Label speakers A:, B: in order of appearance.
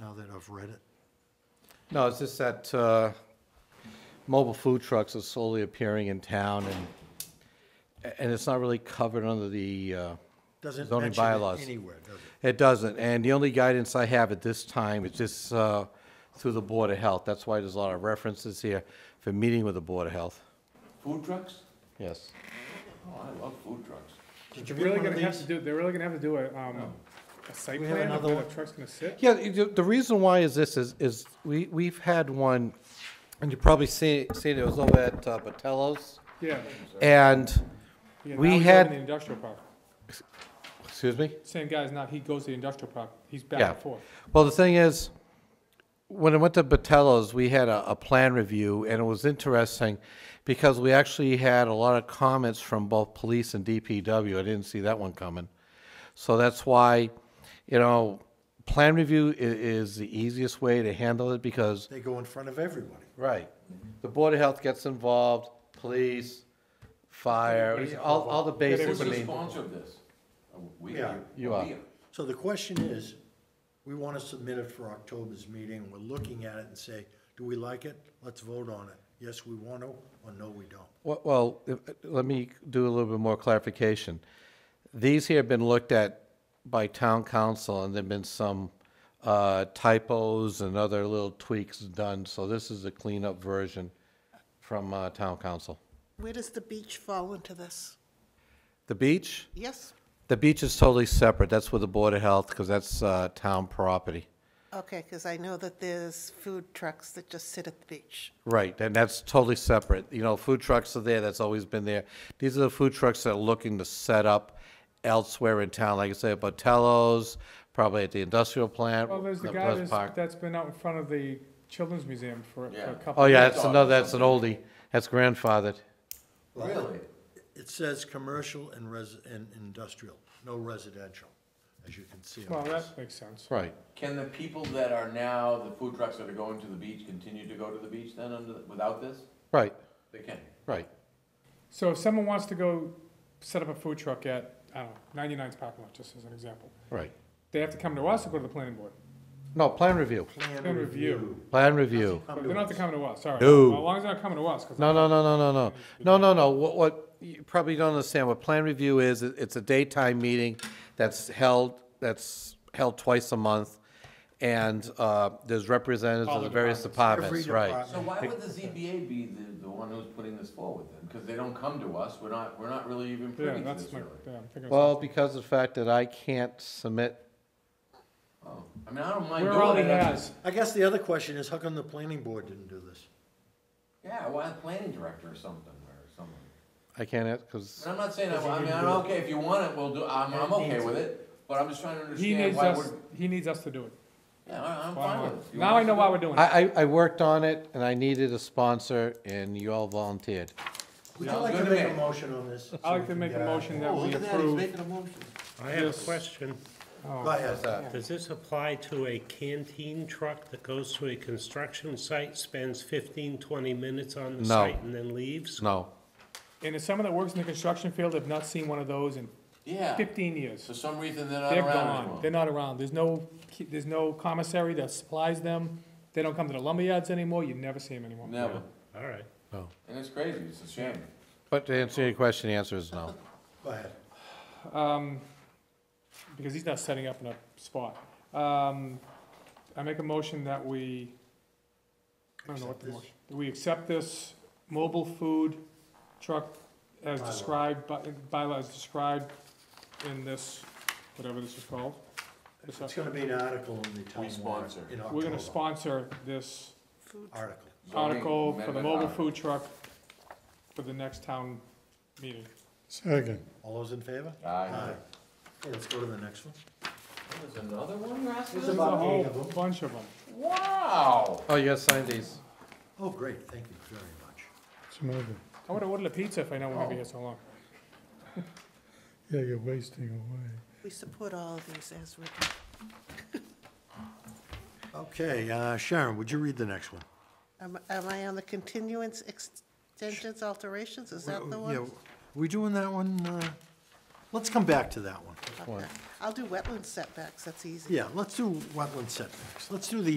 A: that I've read it.
B: No, it's just that uh, mobile food trucks are slowly appearing in town, and, and it's not really covered under the uh,
A: Doesn't
B: zoning
A: mention it
B: bylaws.
A: anywhere, does it?
B: It doesn't, and the only guidance I have at this time is just uh, through the Board of Health. That's why there's a lot of references here for meeting with the Board of Health.
C: Food trucks?
B: Yes.
C: Oh, I love food trucks.
A: Did you
D: They're
A: read
D: really
A: one of
D: gonna have
A: these?
D: to do, they're really gonna have to do a, um,
C: Oh.
D: a site
A: We have
D: plan of
A: another
D: where the
A: one.
D: truck's gonna sit.
B: Yeah, you- the reason why is this, is, is we, we've had one, and you probably see, seen it, it was over at uh, Patello's,
D: Yeah.
B: and,
D: Yeah, now
B: We
D: he's over
B: had-
D: in The industrial park.
B: excuse me?
D: Same guy's not, he goes to the industrial park. He's back
B: Yeah.
D: and forth.
B: Well, the thing is, when I went to Batello's, we had a, a plan review, and it was interesting because we actually had a lot of comments from both police and DPW. I didn't see that one coming. So that's why, you know, plan review i- is the easiest way to handle it because,
A: They go in front of everybody.
B: right, the Board of Health gets involved, police, fire, all, all the basics. I
C: Who's the
B: mean,
C: sponsor of this? Uh, We
A: Yeah.
C: are.
B: You are.
C: We are.
A: So the question is, we want to submit it for October's meeting, and we're looking at it and say, do we like it? Let's vote on it. Yes, we want to, or no, we don't.
B: Well- Well, if- let me do a little bit more clarification. These here have been looked at by town council, and there've been some uh, typos and other little tweaks done, so this is a cleanup version from uh, town council.
E: Where does the beach fall into this?
B: The beach,
E: Yes?
B: the beach is totally separate, that's with the Board of Health, because that's uh, town property.
E: Okay, because I know that there's food trucks that just sit at the beach.
B: Right, and that's totally separate. You know, food trucks are there, that's always been there. These are the food trucks that are looking to set up elsewhere in town, like I say, Botello's, probably at the industrial plant.
D: Well, there's the
B: the
D: guy
B: Pleasant
D: that's,
B: Park.
D: that's been out in front of the Children's Museum for, for
C: Yeah.
D: a couple.
B: Oh, yeah,
D: years.
B: that's another, that's an oldie. That's grandfathered.
C: Really?
A: It says commercial and res, and industrial, no residential, as you can see
D: Well,
A: on this.
D: that makes sense.
B: Right.
C: Can the people that are now, the food trucks that are going to the beach, continue to go to the beach then under, the- without this?
B: Right,
C: They can.
B: right.
D: So if someone wants to go set up a food truck at, I don't know, 99's parking lot, just as an example,
B: Right.
D: they have to come to us or go to the planning board?
B: No, plan review,
A: Plan
D: Plan review.
A: review.
B: plan review.
D: But They don't have to come to us, sorry.
B: No.
D: As long as they're not coming to us, 'cause
B: No, no, no, no, no, no. No, no, no. What, what, you probably don't understand what plan review is. It- It's a daytime meeting that's held, that's held twice a month. And, uh, there's representatives
D: All
B: of the
D: the
B: various
A: Every
B: departments, right?
A: department.
C: So why would the ZBA be the, the one who's putting this forward then? Because they don't come to us, we're not, we're not really even
D: Yeah,
C: privy to
D: that's
C: this
D: my,
C: really.
D: yeah, I'm thinking. of
B: Well,
D: something.
B: because of the fact that I can't submit,
C: Oh, I mean, I don't mind
D: We're
C: doing
D: already
C: it. I'm
D: has.
C: just-
A: I guess the other question is, how come the planning board didn't do this?
C: Yeah, why the planning director or something, or someone.
B: I can't, because,
C: And I'm not saying, I I mean, I'm okay, if you want it, we'll do, I'm, I'm okay with it, but I'm just trying to
D: He
C: understand
D: needs
C: why
D: us,
C: we're,
D: he needs us to do it.
C: yeah, all right, I'm fine
D: Why
C: with it.
D: not?
C: You
D: Now
C: want
D: I know
C: us
D: why
C: to
D: we're
C: do
D: doing it.
B: I, I, I worked on it and I needed a sponsor and you all volunteered.
A: Would you
C: Sounds
A: like to
C: good to
A: make a
C: me.
A: motion on this?
D: I'd like to make a motion that we approve. Oh.
C: it?
F: I have
D: Yes.
F: a question.
A: Go ahead.
F: Does this apply to a canteen truck that goes to a construction site, spends 15, 20 minutes on the
B: No.
F: site, and then leaves?
B: No,
D: And if someone that works in the construction field have not seen one of those in
C: Yeah,
D: fifteen years,
C: for some reason they're not
D: they're
C: around
D: gone.
C: anymore.
D: They're not around. There's no, there's no commissary that supplies them. They don't come to the lumberyards anymore. You never see them anymore.
C: Never,
F: All right.
B: no.
C: and it's crazy, it's a shame.
B: But to answer your question, the answer is no.
A: Go ahead.
D: Um, because he's not setting up in a spot. Um, I make a motion that we, I don't know what
A: Accept
D: the
A: this.
D: motion, we accept this mobile food truck as
A: Bylaw.
D: described, by- bylaw as described in this, whatever this is called. This-
A: It's gonna be an article in the
C: We
A: town warrant
C: sponsor.
A: in
D: We're gonna
A: October.
D: sponsor this
E: Food truck.
A: Article.
C: Zoning
D: article for the
C: amendment
D: mobile
C: article.
D: food truck for the next town meeting.
F: Second.
A: All those in favor?
C: Aye.
A: Okay, let's go to the next one.
C: There's another one, you're asking?
A: There's
D: There's
A: about
D: a whole
A: eight of them.
D: bunch of them.
C: Wow,
B: Oh, you gotta sign these.
A: Oh, great, thank you very much.
D: I would've ordered a pizza if I know we're
A: Oh.
D: gonna be here so long.
F: Yeah, you're wasting away.
E: We support all of these as written.
A: Okay, uh, Sharon, would you read the next one?
E: Am am I on the continuance, extensions, alterations? Is that the
A: Yeah,
E: one?
A: We doing that one, uh, Let's come back to that one.
E: Okay. I'll do wetland setbacks, that's easy.
A: Yeah, let's do wetland setbacks. Let's do the